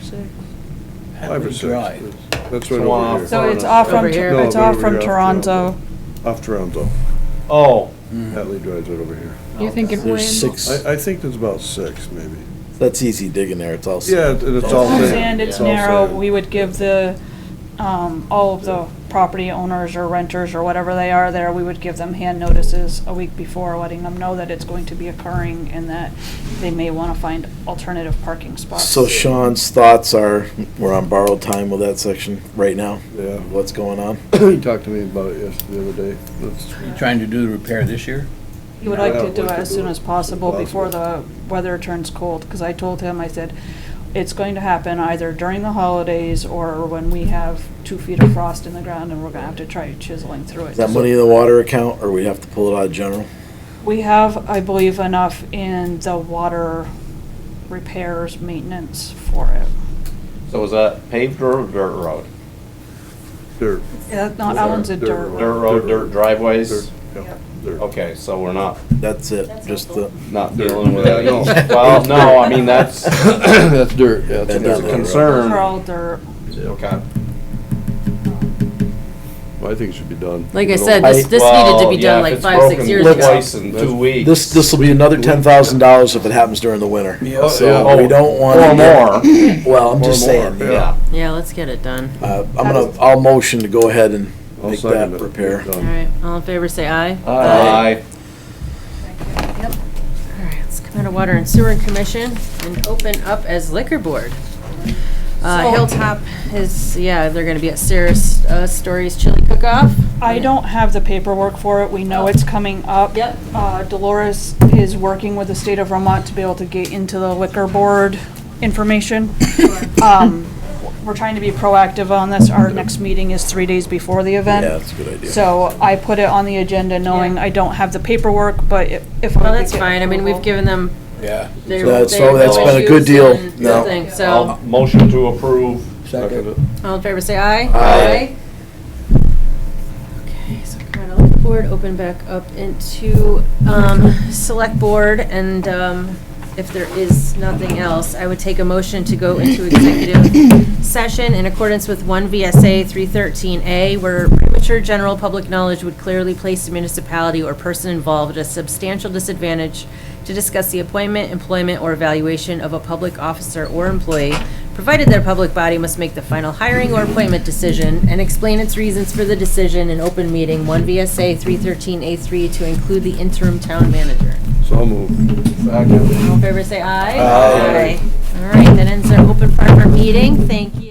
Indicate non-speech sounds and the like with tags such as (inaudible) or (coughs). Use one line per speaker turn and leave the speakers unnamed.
six?
Five or six.
Drive.
That's right
The one
over
uh,
here.
off
So it's off from,
Over here.
No,
it's
right
off
over
from
here, off
Toronto.
Off Toronto.
Oh.
Hatley Drive's right over here.
You're thinking
There's
Wayne.
six,
I, I think there's about six, (coughs) maybe.
that's easy digging there, it's all.
Yeah, it- it's all
sand.
sand.
And it's
Yeah.
narrow, we would give the, um, all of the property owners or renters or whatever they are there, we would give them hand notices a week before, letting them know that it's going to be occurring and that they may wanna find alternative parking spots.
So Sean's thoughts are, we're on borrowed time with that section right now,
Yeah,
what's going on?
he talked to me about it yesterday, the other day. That's-
You trying to do the repair this year?
He would like
Yeah,
to do
we
it
could
as
do
soon
it
as
as
possible before the
possible.
weather turns cold, because I told him, I said, it's going to happen either during the holidays or when we have two feet of frost in the ground and we're gonna have to try chiseling through it.
Is that money in the water account, or we have to pull it out of general?
We have, I believe, enough in the water repairs, maintenance for it.
So is that paved road or dirt road?
Dirt.
Yeah, no, that one's Uh, a
Dirt
dirt
Dirt
road.
road, dirt
Dirt,
driveways?
yeah,
Yep.
dirt.
Okay, so we're not,
That's it,
That's
just
helpful.
the,
not
Dirt.
dealing
(laughs)
with
Yeah,
(laughs)
that.
no.
Well, no, I mean, that's,
(coughs) That's dirt, yeah.
That's
that's
there's
Those
dirt.
a
are
concern.
all dirt.
Okay.
Well, I think it should be done.
Like I
You know,
said, this,
I-
this needed to be
Well, yeah,
done
if
like
it's
five, six
broken
years ago.
Twice in two weeks.
this, this'll be another ten thousand dollars if it happens during the winter.
Yeah.
So
Oh.
we don't wanna.
Or more,
get- (coughs) Well, I'm
Or
just
more,
saying,
yeah.
Yeah, let's get it done.
uh, I'm gonna, I'll motion to go ahead and
I'll
make
second
that
it.
repair.
Done.
All right, all in favor, say aye.
Aye.
All right, let's come out of Water and Sewer Commission and open up as liquor board. Uh, Hilltop is, yeah, they're gonna be at Sarah's, uh, Stories Chili Cook-Off.
I don't have the paperwork for it, we know it's coming up.
Oh. Yep.
Uh, Dolores is working with the state of Vermont to be able to get into the liquor board information. Um, We're trying to be proactive on this, our next meeting is three days before the
Yeah,
event.
that's a good idea.
So I put it on the agenda knowing
Yeah.
I don't have the paperwork, but i- if I
Well,
could
that's
get
fine, I mean, we've
approval-
given them
Yeah.
their.
That's-
their
so that's been a good
issues
deal.
and
No.
thing, So,
I'll- Motion to approve.
all in favor, say aye.
Aye.
Okay, so come out of liquor board, open back up into, um, select board, and, um, if there is nothing else, I would take a motion to go into executive session in accordance with one VSA three thirteen A, where premature general public knowledge would clearly place the municipality or person involved at a substantial disadvantage to discuss the appointment, employment, or evaluation of a public officer or employee, provided their public body must make the final hiring or appointment decision and explain its reasons for the decision in open meeting, 1 VSA 313A3 to include the interim town manager.
So moved.
All in favor, say aye.
Aye.
All right, that ends our open part of our meeting. Thank you.